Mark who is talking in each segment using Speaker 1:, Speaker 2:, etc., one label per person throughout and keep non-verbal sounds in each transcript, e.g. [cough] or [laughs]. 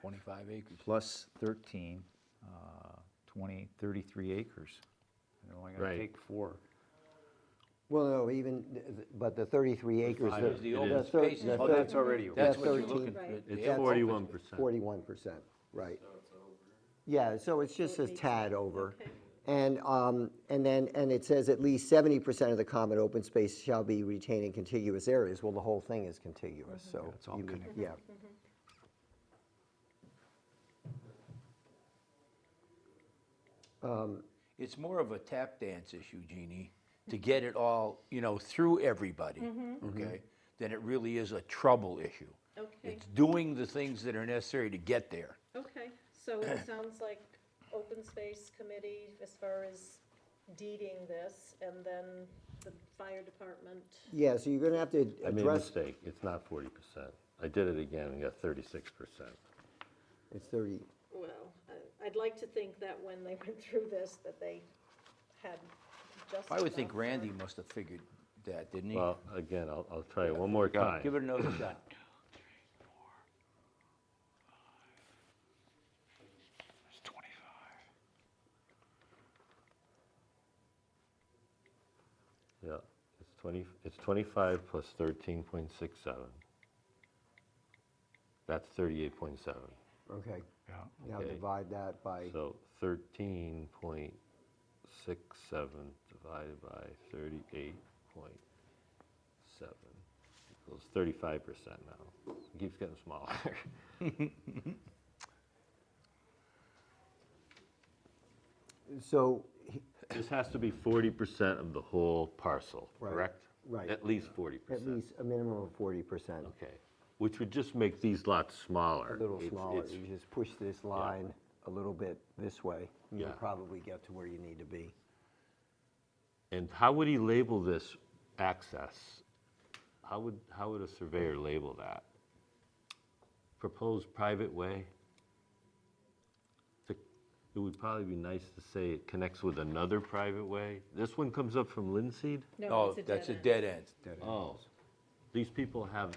Speaker 1: 25 acres.
Speaker 2: plus 13, uh, 20, 33 acres. They're only going
Speaker 3: Right.
Speaker 2: to take four.
Speaker 4: Well, no, even, th- th- but the 33 acres.
Speaker 1: Five is the open
Speaker 4: the thir-
Speaker 1: space.
Speaker 4: the
Speaker 1: Oh,
Speaker 4: thir-
Speaker 1: that's
Speaker 2: already-
Speaker 4: the
Speaker 1: That's what you're
Speaker 4: 13
Speaker 1: looking for.
Speaker 5: Right.
Speaker 1: the
Speaker 3: It's
Speaker 1: open-
Speaker 3: 41%.
Speaker 4: 41%, right. Yeah, so it's just a tad over. And, um, and then, and it says at least 70% of the common open space shall be retained in contiguous areas. Well, the whole thing is contiguous, so.
Speaker 2: it's all
Speaker 4: you mean-
Speaker 2: connected.
Speaker 4: Yeah.
Speaker 1: It's more of a tap dance issue, Jeannie, to get it all, you know, through everybody,
Speaker 5: Mm-hmm.
Speaker 1: okay? Than it really is a trouble issue.
Speaker 5: Okay,
Speaker 1: It's doing the things that are necessary to get there.
Speaker 5: okay, so
Speaker 1: [coughs]
Speaker 5: it sounds like open space committee as far as deeding this, and then the fire department.
Speaker 4: Yeah, so you're going to have to
Speaker 3: I made a
Speaker 4: address,
Speaker 3: mistake, it's not forty percent. I did it again and got thirty-six percent.
Speaker 4: it's 30,
Speaker 5: Well, I- I'd like to think that when they [laughs] went through this, that they had just.
Speaker 1: I would think
Speaker 5: enough for-
Speaker 1: Randy must have figured that, didn't he?
Speaker 3: Well, again, I'll, I'll try it one more time.
Speaker 1: Give it another
Speaker 5: [coughs]
Speaker 1: [coughs] shot.
Speaker 2: It's 25.
Speaker 3: Yeah, it's twenty, it's twenty-five plus thirteen point six seven. That's thirty-eight point seven.
Speaker 4: okay.
Speaker 2: Yeah.
Speaker 4: Now
Speaker 3: Okay.
Speaker 4: divide that by,
Speaker 3: So thirteen point six seven divided by thirty-eight point seven equals thirty-five percent now. It keeps getting smaller. [laughs]
Speaker 4: so he-
Speaker 3: This has to be forty percent of the whole parcel,
Speaker 4: Right,
Speaker 3: correct?
Speaker 4: right.
Speaker 3: At least forty
Speaker 4: at
Speaker 3: percent.
Speaker 4: least a minimum of 40%.
Speaker 3: Okay, which would just make these lots smaller.
Speaker 4: A little
Speaker 3: It's-
Speaker 4: smaller,
Speaker 3: it's-
Speaker 4: you just push this line a little bit this way, and you'll
Speaker 3: Yeah.
Speaker 4: probably get to where you need to be.
Speaker 3: And how would he label this access? How would, how would a surveyor label that? Proposed private way? To- It would probably be nice to say it connects with another private way. This one comes up from Linseed?
Speaker 5: No,
Speaker 1: Oh,
Speaker 5: it's a dead
Speaker 1: that's a
Speaker 5: end.
Speaker 1: dead end.
Speaker 3: Oh, these people have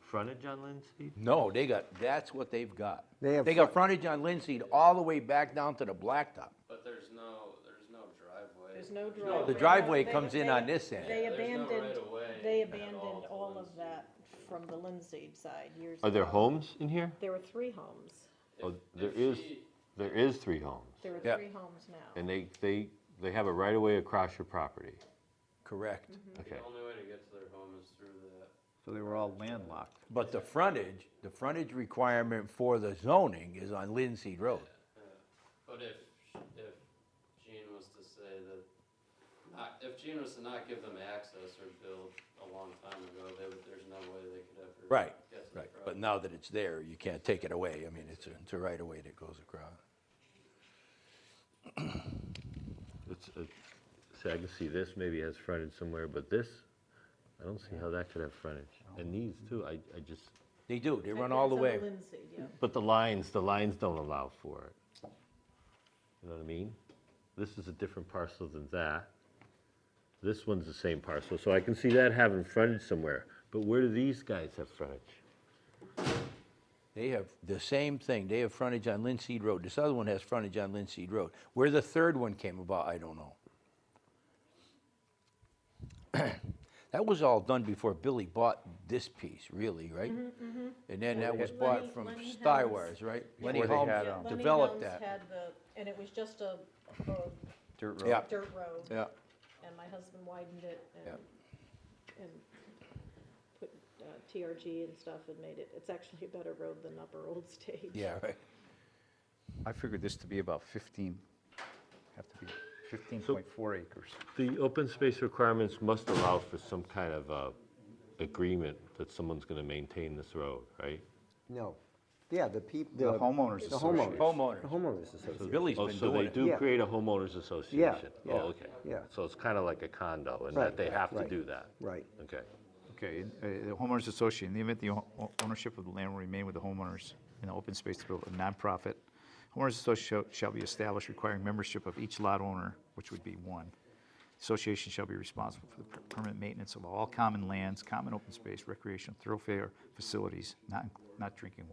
Speaker 3: frontage on Linseed?
Speaker 1: No, they got, that's what they've got.
Speaker 4: They have
Speaker 1: They
Speaker 4: fr-
Speaker 1: got frontage on Linseed all the way back down to the blacktop.
Speaker 6: But there's no, there's no driveway.
Speaker 5: There's no driveway.
Speaker 1: the driveway
Speaker 5: They-
Speaker 1: comes in
Speaker 5: they-
Speaker 1: on this end.
Speaker 5: They
Speaker 6: Yeah, there's no
Speaker 5: abandoned,
Speaker 6: right-of-way
Speaker 5: they
Speaker 6: at all
Speaker 5: abandoned
Speaker 6: to
Speaker 5: all of
Speaker 6: Lindsay.
Speaker 5: that from the Lindsay side years ago.
Speaker 3: Are there homes in here?
Speaker 5: There were three homes.
Speaker 3: Oh, There is,
Speaker 6: she-
Speaker 3: there is three homes.
Speaker 5: There
Speaker 1: Yeah.
Speaker 5: are three homes now.
Speaker 3: And they, they, they have a right of way across your property.
Speaker 1: Correct.
Speaker 5: Mm-hmm.
Speaker 3: Okay.
Speaker 6: The only way to get to their home is through that.
Speaker 2: So they were all landlocked.
Speaker 1: But the frontage, the frontage requirement for the zoning is on Linseed Road.
Speaker 6: But if, if Gene was to say that, not, if Gene was to not give them access or build a long time ago, they would, there's no way they could ever.
Speaker 1: Right,
Speaker 6: get to the
Speaker 1: right. But
Speaker 6: property.
Speaker 1: now that it's there, you can't take it away. I mean, it's a, it's a right of way that goes across.
Speaker 3: It's, it- uh, see, I can see this maybe has frontage somewhere, but this, I don't see how that could have frontage. And these too, I, I just,
Speaker 1: They do, they
Speaker 5: I
Speaker 1: run
Speaker 5: think
Speaker 1: all the
Speaker 5: it's on
Speaker 1: way.
Speaker 5: Lindsay, yeah.
Speaker 3: but the lines, the lines don't allow for it. You know what I mean? This is a different parcel than that. This one's the same parcel, so I can see that having frontage somewhere. But where do these guys have frontage?
Speaker 1: They have the same thing. They have frontage on Linseed Road. This other one has frontage on Linseed Road. Where the third one came about, I don't know. [clears throat] That was all done before Billy bought this piece, really, right? And then that was bought
Speaker 5: Lenny-
Speaker 1: from
Speaker 5: Lenny Helms.
Speaker 1: Stywires, right? Lenny
Speaker 2: Before
Speaker 1: Helms
Speaker 2: they had,
Speaker 5: Yeah,
Speaker 2: um,
Speaker 5: Lenny
Speaker 1: developed
Speaker 5: Helms
Speaker 1: that.
Speaker 5: had the, and it was just a, a
Speaker 2: Dirt road.
Speaker 1: Yeah.
Speaker 5: dirt road.
Speaker 1: Yeah,
Speaker 5: And my husband widened it
Speaker 1: Yeah.
Speaker 5: and, and put uh, TRG and stuff and made it, it's actually a better road than Upper Old Stage.
Speaker 1: yeah, right.
Speaker 2: I figured this to be about 15, have to be 15.4 acres.
Speaker 3: The open space requirements must allow for some kind of, uh, agreement that someone's gonna maintain this road, right?
Speaker 4: No, yeah, the people.
Speaker 2: The homeowners
Speaker 4: The homeowners.
Speaker 1: Homeowners.
Speaker 4: The homeowners association.
Speaker 1: Billy's
Speaker 3: Oh,
Speaker 1: been
Speaker 3: so they
Speaker 1: doing it.
Speaker 3: do
Speaker 4: Yeah.
Speaker 3: create a homeowners association?
Speaker 4: yeah,
Speaker 3: Oh, okay.
Speaker 4: yeah.
Speaker 3: So it's kind of like a condo in that
Speaker 4: Right,
Speaker 3: they have to
Speaker 4: right,
Speaker 3: do that?
Speaker 4: Right,
Speaker 3: Okay.
Speaker 2: Okay, and, uh, the homeowners association, in the event the o- ownership of the land will remain with the homeowners in the open space to build a nonprofit, homeowners association shall be established requiring membership of each lot owner, which would be one. Association shall be responsible for the per- permanent maintenance of all common lands, common open space, recreational thoroughfare facilities, not, not drinking water.